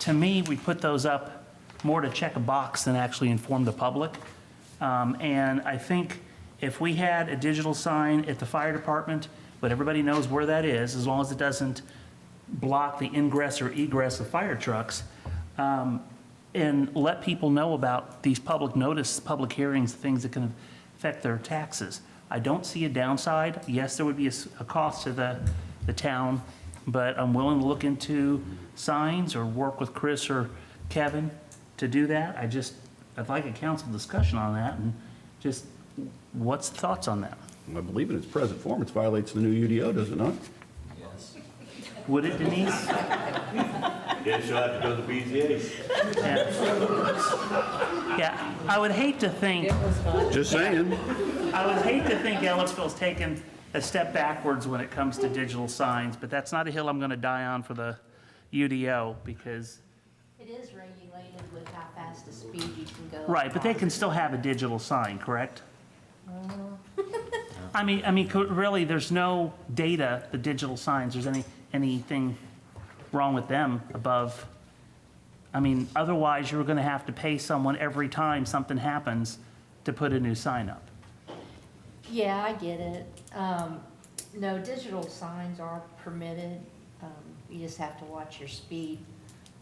to me, we put those up more to check a box than actually inform the public. Um, And I think if we had a digital sign at the fire department, but everybody knows where that is, as long as it doesn't block the ingress or egress of fire trucks, um, and let people know about these public notice, public hearings, things that can affect their taxes. I don't see a downside. Yes, there would be a, s- a cost to the, the town, but I'm willing to look into signs or work with Chris or Kevin to do that. I just, I'd like a council discussion on that and just, what's the thoughts on that? I believe in its present form, it violates the new UDO, does it not? Would it Denise? Guess you'll have to go to the BZA. Yeah, Yeah, I would hate to think Just saying. I would hate to think Ellisville's taken a step backwards when it comes to digital signs, but that's not a hill I'm going to die on for the UDO because, It is regulated with how fast the speed you can go. right, but they can still have a digital sign, correct? I mean, I mean, co- really, there's no data, the digital signs, there's any, anything wrong with them above. I mean, otherwise, you're going to have to pay someone every time something happens to put a new sign up. Yeah, I get it. Um, no, digital signs are permitted. Um, you just have to watch your speed,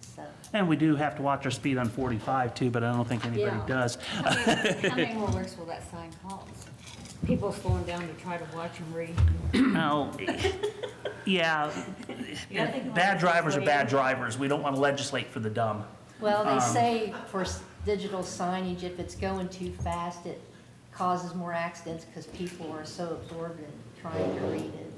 so. And we do have to watch our speed on 45 too, but I don't think anybody Yeah. does. How many more works will that sign cause? People slowing down to try to watch and read. No, Oh, yeah, bad drivers are bad um, drivers. We don't want to legislate for the dumb. Well, they say for s- digital signage, if it's going too fast, it causes more accidents because people are so absorbed in trying to read it.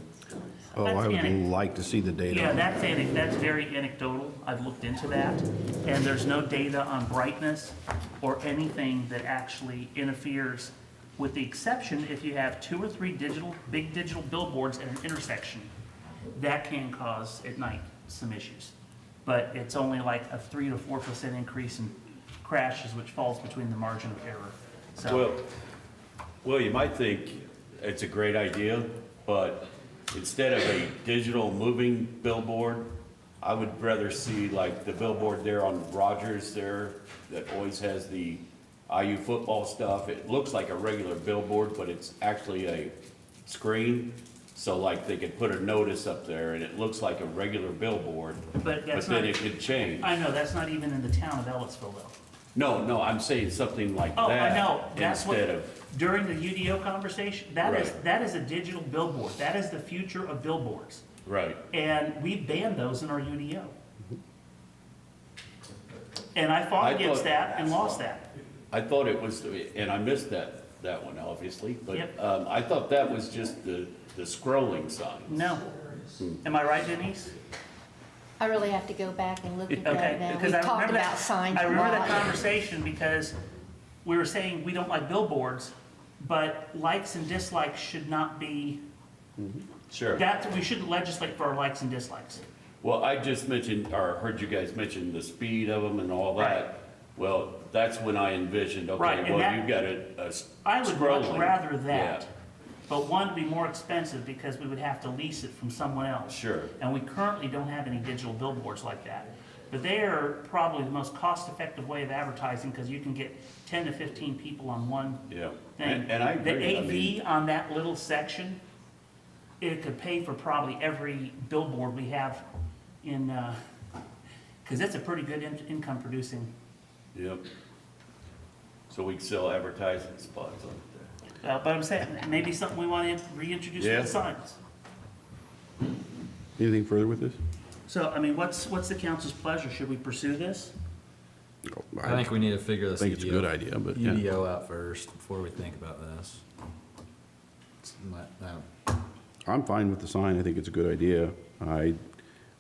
Oh, I That's would anec- like to see the data. Yeah, that's, anec- that's very anecdotal. I've looked into that. And there's no data on brightness or anything that actually interferes, with the exception if you have two or three digital, big digital billboards at an intersection. That can cause at night some issues. But it's only like a three to four percent increase in crashes, which falls between the margin of error. Well, So, well, you might think it's a great idea, but instead of a digital moving billboard, I would rather see like the billboard there on Rogers there that always has the IU football stuff. It looks like a regular billboard, but it's actually a screen. So like they could put a notice up there and it looks like a regular billboard, but but that's then not, e, it could change. I know, that's not even in the town of Ellisville though. No, no, I'm saying something like Oh, I know, that that's what, instead of. during the UDO conversation, that is, Right. that is a digital billboard, that is the future of billboards. Right. And we banned those in our UDO. And I fought I against thought- that and lost that. I thought it was, and I missed that, that one obviously, but Yep. um, I thought that was just the, the scrolling sign. No. Am I right, Denise? I really have to go back and look at that Okay, now. We've because I talked remember that. about signs I a remember that lot. conversation because we were saying we don't like billboards, but likes and dislikes should not be, Sure. that, we shouldn't legislate for our likes and dislikes. Well, I just mentioned, or heard you guys mention the speed of them and all Right. that. Well, that's when I envisioned, Right, and okay, well, that- you've got a, a s- I would much scrolling. rather Yeah, that, but one would be more expensive because we would have to lease it from someone else. Sure. And we currently don't have any digital billboards like that. But they are probably the most cost-effective way of advertising because you can get 10 to 15 people on one Yeah, thing. and, and I agree. I mean, The AV on that little section, it could pay for probably every billboard we have in, because that's a pretty good in- income-producing. Yep. So we can sell advertising spots on it there. uh, But I'm saying, maybe something we want to reintroduce Yeah. with the signs. Anything further with this? So, I mean, what's, what's the council's pleasure? Should we pursue this? I think we need to figure this think it's a good UDO idea, but yeah. UDO out first before we think about this. It's not- no. I'm fine with the sign. I think it's a good idea. I,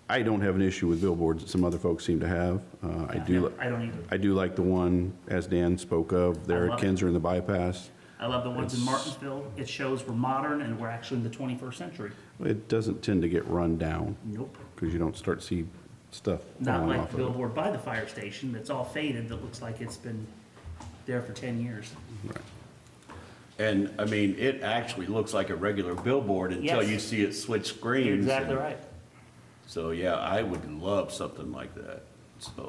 I don't have an issue with billboards that some other folks seem to have. Uh, I do, li- I don't either. I do like the one, as Dan spoke of, there I at love it. Kinzer and the bypass. I love the ones in Martinsville. It shows we're modern and we're actually in the 21st century. It doesn't tend to get run down Nope. because you don't start to see stuff Not falling like off the of it. billboard by the fire station that's all faded that looks like it's been there for 10 years. And, I mean, it actually looks like a regular billboard until Yes. you see it switch screens. You're exactly and- right. So, yeah, I would love something like that, so.